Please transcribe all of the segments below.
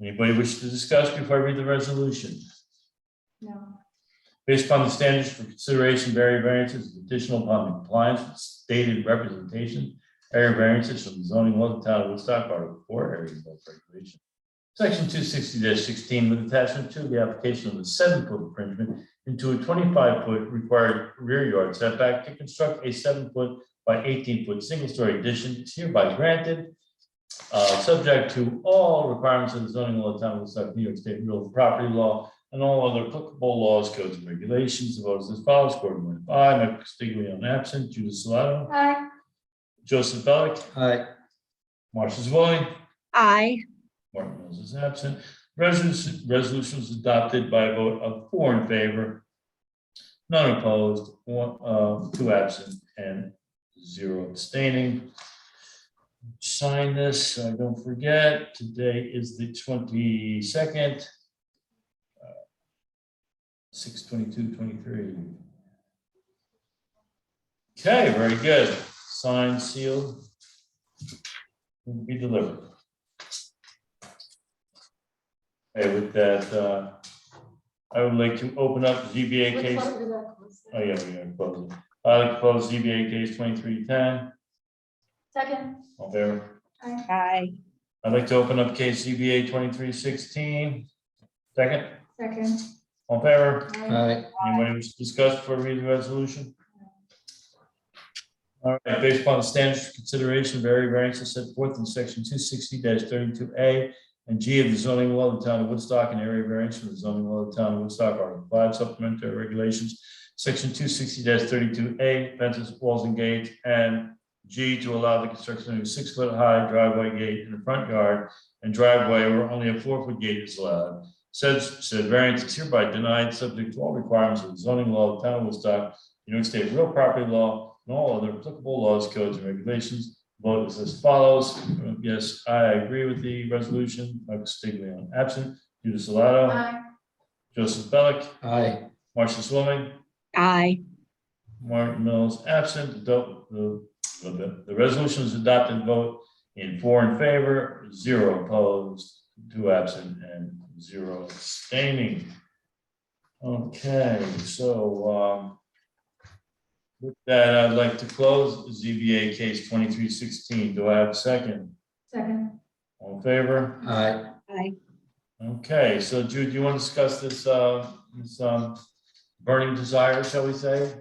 Anybody wish to discuss before I read the resolution? No. Based upon the standards for consideration, area variances is additional upon compliance with stated representation. Area variances from the zoning law of the town of Woodstock, Article four, area of regulation. Section two sixty sixteen with attachment to the application of a seven foot infringement into a twenty-five foot required rear yard setback to construct a seven foot by eighteen foot single story addition is hereby granted. uh, subject to all requirements of the zoning law of the town of Woodstock, New York State Real Property Law, and all other applicable laws, codes, and regulations. The vote is as follows, Gordon Moore, aye, Mike Castiglione, absent, Judith Salado, Aye. Joseph Bellak, aye, Marcia Zavoli, aye, Martin Mills is absent. Resolution, resolution is adopted by a vote of four in favor, none opposed, one, uh, two absent, and zero abstaining. Sign this, so I don't forget, today is the twenty-second. Uh, Six twenty-two, twenty-three. Okay, very good. Signed, sealed. Will be delivered. Hey, with that, uh, I would like to open up the ZBA Which case. one did I close? Oh, yeah, we are closing. I like to close ZBA case twenty-three ten, Second. all favor. Aye. aye, I'd like to open up case ZBA twenty-three sixteen. Second, Second. all favor. Aye. aye, Anybody wish to discuss before we read the resolution? All right, based upon the standards for consideration, of area variances set forth in section two sixty thirty-two A and G of the zoning law of the town of Woodstock and area variance from the zoning law of the town of Woodstock, Article five supplementary regulations, section two sixty thirty-two A, fences, walls and gates, and G to allow the construction of a six-foot-high driveway gate in the front yard and driveway where only a four-foot gate is allowed. Said, said variance is hereby denied, subject to all requirements of the zoning law of the town of Woodstock, New York State real property law, and all other applicable laws, codes, and regulations. Vote is as follows. Yes, I agree with the resolution. Mike Stiglione absent. Judith Salado, Aye. Joseph Bellak, aye, Marcia Swilling, aye, Martin Mills absent. The, the, the- the resolution is adopted. Vote in four in favor, zero opposed, two absent, and zero abstaining. Okay, so, um, with that, I'd like to close ZBA case twenty-three sixteen. Do I have a second? Second. All in favor? aye. aye. Okay, so Jude, do you want to discuss this, uh, this, um, burning desire, shall we say?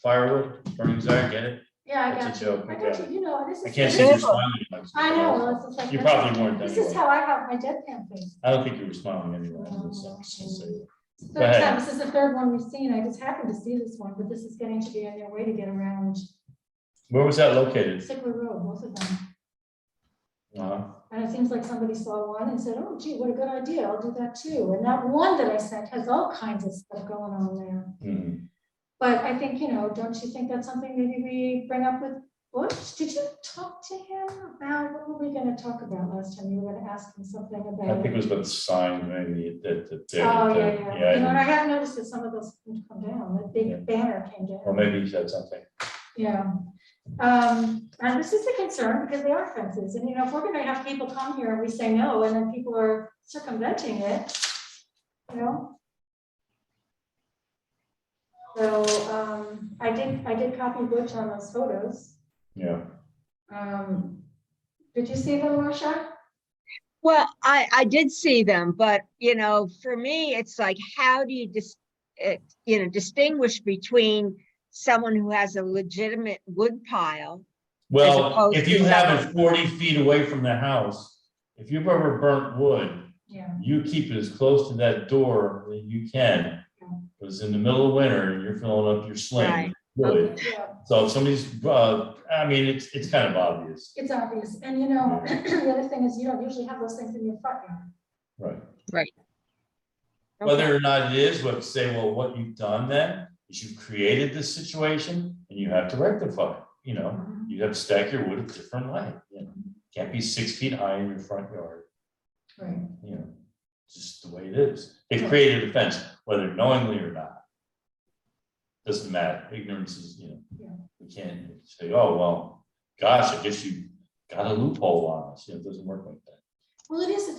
Firewood, burning desire, get it? Yeah, I got That's a you. joke, I I got guess. you, you know, this is. I can't see see you you smiling. I know, well, it's just like. You probably weren't This is anyway. how I have my deadpan face. I don't think you were smiling anyway. Oh, That's- that's- that's- okay. It's the Go Third ahead. time, this is the third one we've seen. I just happened to see this one, but this is getting to be on their way to get around Where was that located? Sickler Road, both of them. Uh, And it seems like somebody saw one and said, oh gee, what a good idea, I'll do that too. And that one that I sent has all kinds of stuff going on there. hmm. But I think, you know, don't you think that's something maybe we bring up with Bush? Did you talk to him about, what were we gonna talk about last time? You were gonna ask him something I about. think it was about the sign, maybe, that, that, Oh, that- yeah, that- yeah. You know, and yeah. I have noticed that some of those things come down, that Yeah. big banner came Or down. maybe he said something. Yeah. Um, and this is a concern because they are fences. And, you know, if we're gonna have people come here and we say no, and then people are circumventing it, you know? So, um, I did, I did copy Butch on those photos. Yeah. Um, did you see them, Marcia? Well, I, I did see them, but, you know, for me, it's like, how do you dis, eh, you know, distinguish between someone who has a legitimate wood pile? Well, opposed if to you have it that- forty feet away from the house, if you've ever burnt wood, Yeah. you keep it as close to that door that you can. Because in the middle of winter, and you're filling up your sling. Right. with wood. Yeah, So if somebody's, uh, I mean, it's, it's kind of obvious. it's obvious. And you know, the other thing is you don't usually have those things in your front yard. Right. Okay. Whether or not it is, what say, well, what you've done then is you've created this situation and you have to rectify it, you know? You have to stack your wood a different way, you know? Can't be six feet high in your front yard, Right. you know? It's Just the way it is. They've created a fence, whether knowingly or not. Doesn't matter. Ignorance is, you Yeah. know, we can't say, oh, well, gosh, I guess you got a loophole on us. You know, it doesn't work like that. Well, it is a